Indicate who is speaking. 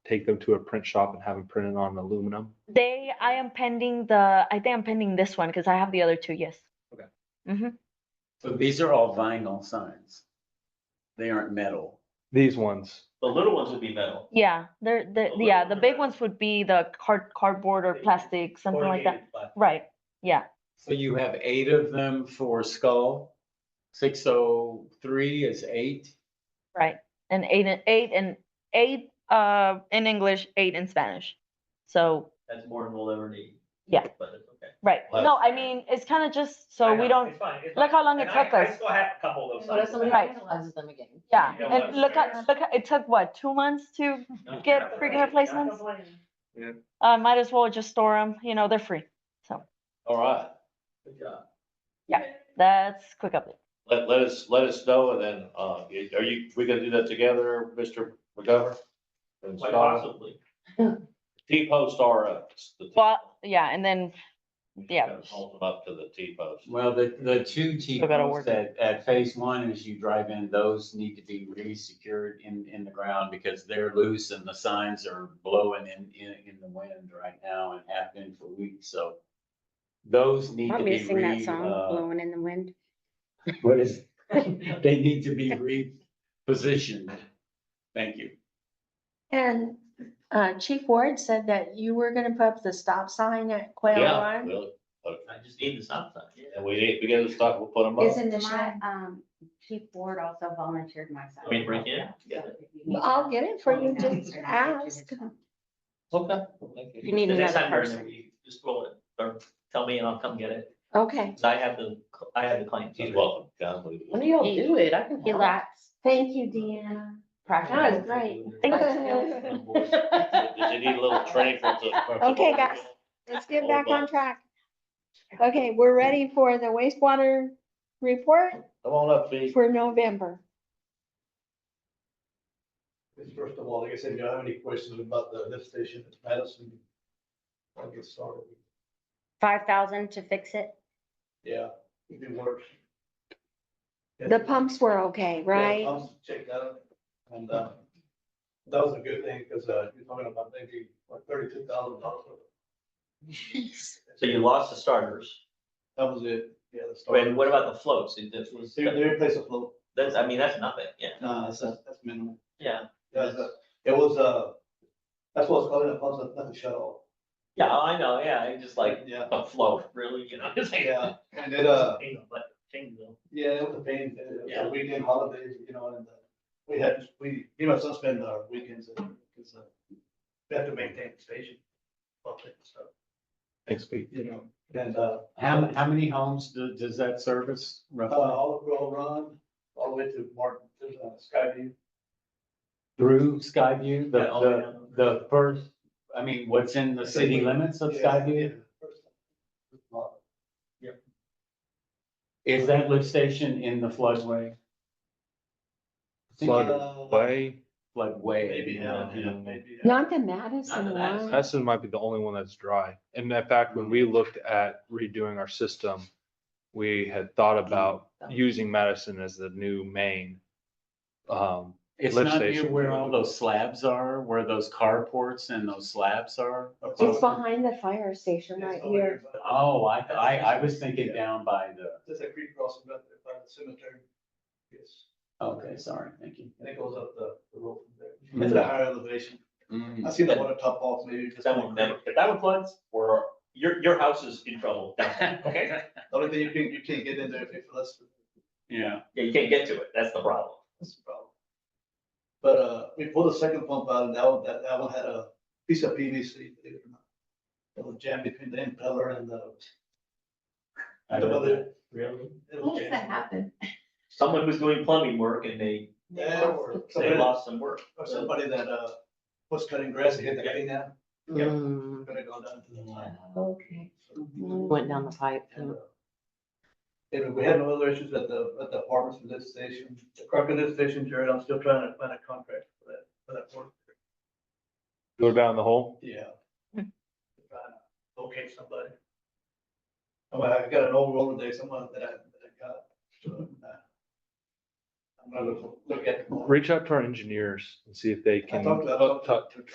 Speaker 1: take them to a print shop and have them printed on aluminum?
Speaker 2: They, I am pending the, I think I'm pending this one because I have the other two, yes.
Speaker 3: Okay.
Speaker 2: hmm
Speaker 3: So these are all vinyl signs. They aren't metal.
Speaker 1: These ones,
Speaker 4: The little ones would be metal.
Speaker 2: Yeah, they're, the,
Speaker 4: The
Speaker 2: yeah, the big
Speaker 4: little ones are better.
Speaker 2: ones would be the card, cardboard or
Speaker 4: Oh, Big,
Speaker 2: plastic, something like that.
Speaker 4: corrugated plastic.
Speaker 2: Right, yeah,
Speaker 3: So you have eight of them for skull. Six oh three is eight.
Speaker 2: right. And eight, and eight and eight, uh, in English, eight in Spanish. So,
Speaker 4: That's more than we'll ever need.
Speaker 2: Yeah.
Speaker 4: But it's okay.
Speaker 2: right.
Speaker 3: Well-
Speaker 2: No, I mean, it's kind of just, so
Speaker 4: I
Speaker 2: we
Speaker 4: know,
Speaker 2: don't,
Speaker 4: it's fine, it's
Speaker 2: look
Speaker 4: fine.
Speaker 2: how long it
Speaker 4: And I-
Speaker 2: took
Speaker 4: I
Speaker 2: us.
Speaker 4: still have a couple of those.
Speaker 5: What if somebody
Speaker 2: Right.
Speaker 5: vandalizes them again?
Speaker 2: yeah.
Speaker 4: You know
Speaker 2: And
Speaker 4: what's
Speaker 2: look
Speaker 4: fair.
Speaker 2: at, look at, it took what, two months to, get freaking replacements? uh, might as well just store them, you know, they're free.
Speaker 3: All right.
Speaker 4: Good job.
Speaker 2: That's quick update.
Speaker 6: Let, let us, let us know and then, uh, you- are you, we gonna do that together, Mr. McGovern? And
Speaker 4: Quite
Speaker 6: Scott?
Speaker 4: possibly.
Speaker 6: T-post are up. It's the T-
Speaker 2: Well, yeah, and then, yeah.
Speaker 6: gotta Hold them up to the T-post.
Speaker 3: Well, the, the two T
Speaker 2: Still gotta
Speaker 3: posts
Speaker 2: work
Speaker 3: at, at phase one, as you drive in, those need to be re-secured in, in the ground because they're loose and the signs are blowing in, in, in the wind right now and have been for weeks, so. Those need to
Speaker 7: Want me
Speaker 3: be
Speaker 7: to sing that
Speaker 3: re,
Speaker 7: song,
Speaker 3: uh,
Speaker 7: Blowing in the Wind?
Speaker 3: what is, they need to be repositioned. Thank you.
Speaker 5: And uh, Chief Ward said that you were gonna put up the stop sign at Quail
Speaker 6: Yeah,
Speaker 5: Run.
Speaker 6: really.
Speaker 4: I just need the stop sign. yeah.
Speaker 6: And we need, we gotta stop, we'll put them up.
Speaker 5: Isn't the
Speaker 7: My,
Speaker 5: shine?
Speaker 7: um, Chief Ward also volunteered my son.
Speaker 4: Want me to bring it in?
Speaker 7: So if you need
Speaker 5: I'll get it for you,
Speaker 7: help,
Speaker 5: just
Speaker 7: I'll get you his
Speaker 5: ask.
Speaker 7: son.
Speaker 6: Okay.
Speaker 7: You need
Speaker 4: The next
Speaker 7: another
Speaker 4: time you're in there,
Speaker 7: person.
Speaker 4: you Just roll it, or tell me and I'll come get it,
Speaker 5: Okay,
Speaker 4: 'Cause I have the, I have the claim.
Speaker 6: He's welcome. God, we-
Speaker 5: let me all do it, I can
Speaker 7: He
Speaker 5: help.
Speaker 7: lacks
Speaker 5: Thank you, Deanna. That was great.
Speaker 6: Does he need a little training for the?
Speaker 5: Okay, guys. Let's get
Speaker 6: All
Speaker 5: back on
Speaker 6: about-
Speaker 5: track. Okay, we're ready for the wastewater report
Speaker 6: Come on up, please.
Speaker 5: for November.
Speaker 8: First of all, like I said, if you have any questions about the lift station at Madison, I'll get started.
Speaker 7: five thousand to fix it.
Speaker 8: Yeah, it did work.
Speaker 5: The pumps were okay, right?
Speaker 8: I'll check that out. And, uh, that was a good thing because, uh, you're talking about maybe like thirty-two thousand dollars.
Speaker 4: So you lost the starters,
Speaker 8: That was it. Yeah, the start.
Speaker 4: and what about the floats? It- that was-
Speaker 8: They, they replaced the float.
Speaker 4: That's, I mean, that's nothing, yeah,
Speaker 8: No, that's, that's minimal.
Speaker 4: yeah.
Speaker 8: That's, uh, it was, uh, that's what's called a pump, that's nothing shut off.
Speaker 4: Yeah, I know, yeah, it's just like
Speaker 8: Yeah,
Speaker 4: a float, really, you know? it's like-
Speaker 8: yeah. And it, uh,
Speaker 4: But things though.
Speaker 8: Yeah, it was a pain, it was
Speaker 4: Yeah.
Speaker 8: a weekend holidays, you know, and uh, we had, we, you know, some spend our weekends, because uh, we have to maintain the station. public and stuff,
Speaker 1: thanks, Pete.
Speaker 8: You know, and, uh,
Speaker 3: How, how many homes do- does that service
Speaker 8: uh,
Speaker 3: roughly?
Speaker 8: Olive Grove Run, all the way to Martin, to uh, Skyview.
Speaker 3: Through Skyview, the,
Speaker 4: Yeah, all
Speaker 3: the,
Speaker 4: around.
Speaker 3: the first, I mean, what's in the city limits of Skyview?
Speaker 8: Yeah.
Speaker 3: Is that lift station in the floodway? uh,
Speaker 1: Flood way,
Speaker 3: Floodway.
Speaker 8: Uh, Maybe, yeah, yeah, maybe. uh, yeah.
Speaker 5: Not the Madison
Speaker 4: Not the Madison.
Speaker 5: one.
Speaker 1: Madison might be the only one that's dry. And in fact, when we looked at redoing our system, we had thought about using Madison as the new main. Um,
Speaker 3: It's
Speaker 1: Lift
Speaker 3: not near
Speaker 1: station.
Speaker 3: where all those slabs are, where those carports and those slabs are?
Speaker 5: It's behind the fire station
Speaker 8: It's
Speaker 5: right
Speaker 8: over
Speaker 5: here.
Speaker 8: but
Speaker 3: Oh, I, I, I was thinking down by the,
Speaker 8: There's a creek crossing right there by the cemetery. Yes,
Speaker 3: okay, sorry, thank you.
Speaker 8: and it goes up the, the road from there.
Speaker 3: Mm-hmm.
Speaker 8: It's a higher elevation. I
Speaker 3: Mm.
Speaker 8: see the water top off maybe. just
Speaker 4: That
Speaker 8: like-
Speaker 4: one, that, if that one floods, or your, your house is in trouble. Okay?
Speaker 8: The only thing you can, you can't get in there if you less,
Speaker 3: Yeah,
Speaker 4: Yeah, you can't get to it, that's the problem.
Speaker 8: that's the problem. But, uh, we pulled a second pump out and that one, that, that one had a piece of PVC, believe it or not. It was jammed between the impeller and the.
Speaker 3: I
Speaker 8: the
Speaker 3: know
Speaker 8: other-
Speaker 3: that.
Speaker 4: Really?
Speaker 8: it was jammed.
Speaker 7: happen?
Speaker 4: Someone was doing plumbing work and they,
Speaker 8: Yeah, or
Speaker 4: they
Speaker 8: somebody,
Speaker 4: lost some work.
Speaker 8: or somebody that, uh, was cutting grass and hit the
Speaker 4: Yeah.
Speaker 8: thing down,
Speaker 4: Yeah.
Speaker 5: Mm,
Speaker 8: gonna go down to the line.
Speaker 5: Okay.
Speaker 8: So-
Speaker 5: Went down the pipe.
Speaker 8: And, uh, Anyway, we had no other issues at the, at the apartments for this station, the Crockett lift station, Jared, I'm still trying to find a contract for that, for that work.
Speaker 1: go down the hole.
Speaker 8: Yeah.
Speaker 2: Hmm.
Speaker 8: Trying to Locate somebody. Oh, I got an old roller day, someone that I, that I got. so, uh, I'm gonna look- look at.
Speaker 1: Reach out to our engineers and see if they
Speaker 8: I
Speaker 1: can.
Speaker 8: talked to, I talked to- to